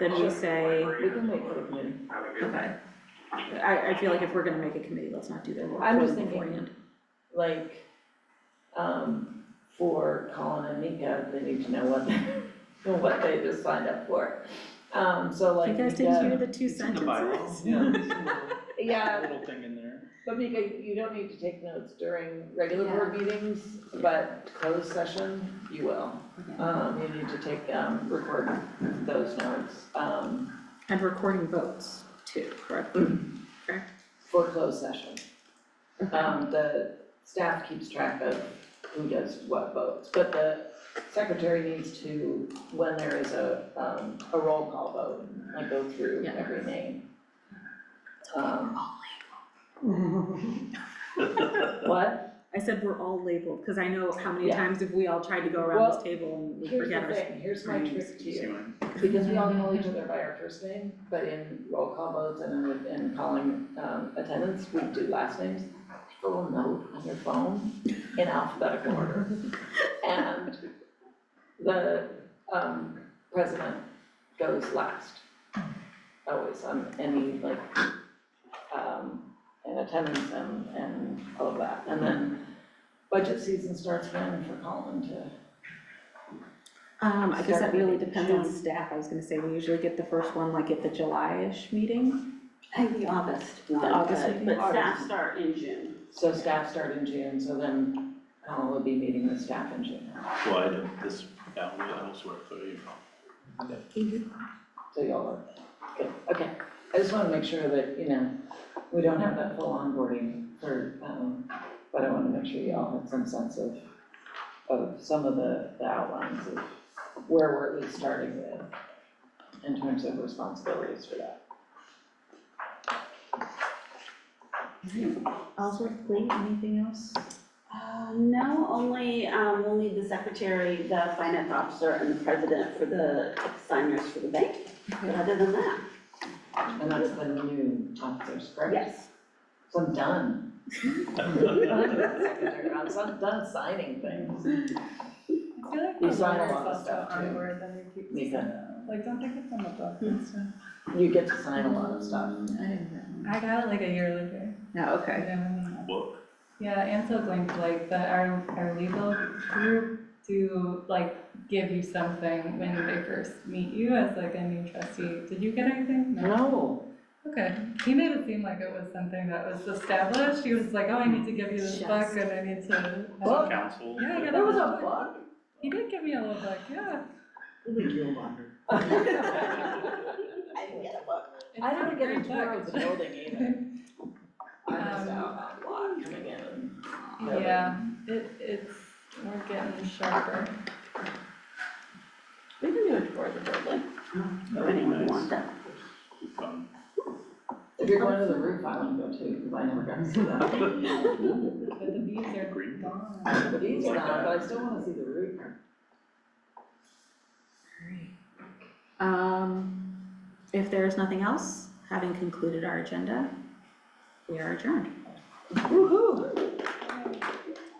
then we say, We can wait for the committee. okay. I, I feel like if we're gonna make a committee, let's not do that. We'll I'm just vote thinking- beforehand. Like, um, for Colin and Nika, they need to know what, they- what they just signed up for. Um, so You like guys didn't hear Nika, the two It's in the sentences? bylaws, yeah, it's in the yeah, little thing in there. but Mika, you don't need to take notes during regular board meetings, but closed session, you will. Um, you need to take, um, record those notes, um, And recording votes too, correct? Correct? for closed session. Um, the staff keeps track of who does what votes, but the secretary needs to, when there is a, um, a roll call vote, like go through Yeah. every name. Um, what? I said we're all labeled, cause I know how many Yeah. times have we all tried to go around Well, this table and we Here's forget the our. thing, here's my trick to You see you, mine? because we all call each other by our first name, but in roll call votes and, in- and calling, um, attendance, we do last names. Put a little note on your phone in alphabetical order. And the um president goes last. Always on any like um in attendance and and all of that. And then budget season starts when for Colin to, Um, I guess that Start really meeting depends on June. staff, I was gonna say, we usually get the first one like at the July-ish meeting. I think the August uh, one, The August but, meeting? but staff August. start in June. so staff start in June, so then Colin will be meeting with staff in June. Well, I did this out elsewhere for you. So y'all are, good, okay. I just wanna make sure that, you know, we don't have that full onboarding for, um, but I wanna make sure y'all have some sense of, of some of the, the outlines of where we're at least starting with in terms of responsibilities for that. Ellsworth, Lee, anything else? Uh, no, only, um, we'll need the secretary, the finance officer, and the president for the signers for the bank. But other than that, And that's the new officers, correct? yes. So I'm done. Secretary, I'm so done signing things. I feel like You the sign a lot of lawyers also stuff, too. on board, then we keep, Nika, like, don't think it's on the book Hmm. and stuff. you get to sign a lot of stuff. I got it like a year later. No, I okay. didn't really know. Book, Yeah, Ansel Glink, like, the, our, our legal group do, like, give you something when they first meet you as like a new trustee. Did you get anything? No, Okay, he made it seem like it was something that was established. He was like, oh, I need to give you this book Just- and I need to. Book? council. Yeah, I got there was a book. He did give me a little book, yeah. I I didn't get a book. don't It's a get Um, a great tour book. of the building either. I missed out on a lot coming in. Yeah. Yeah, it, it's, we're getting sharper. We can do a tour of the building. If That'd be anyone nice. wants that. Fun. If you're going to the roof, I wanna go too, because I never got to see that. But the bees are Green. gone. The bees are gone, but I still wanna see the roof. Um, if there is nothing else, having concluded our agenda, we are adjourned. Woo-hoo.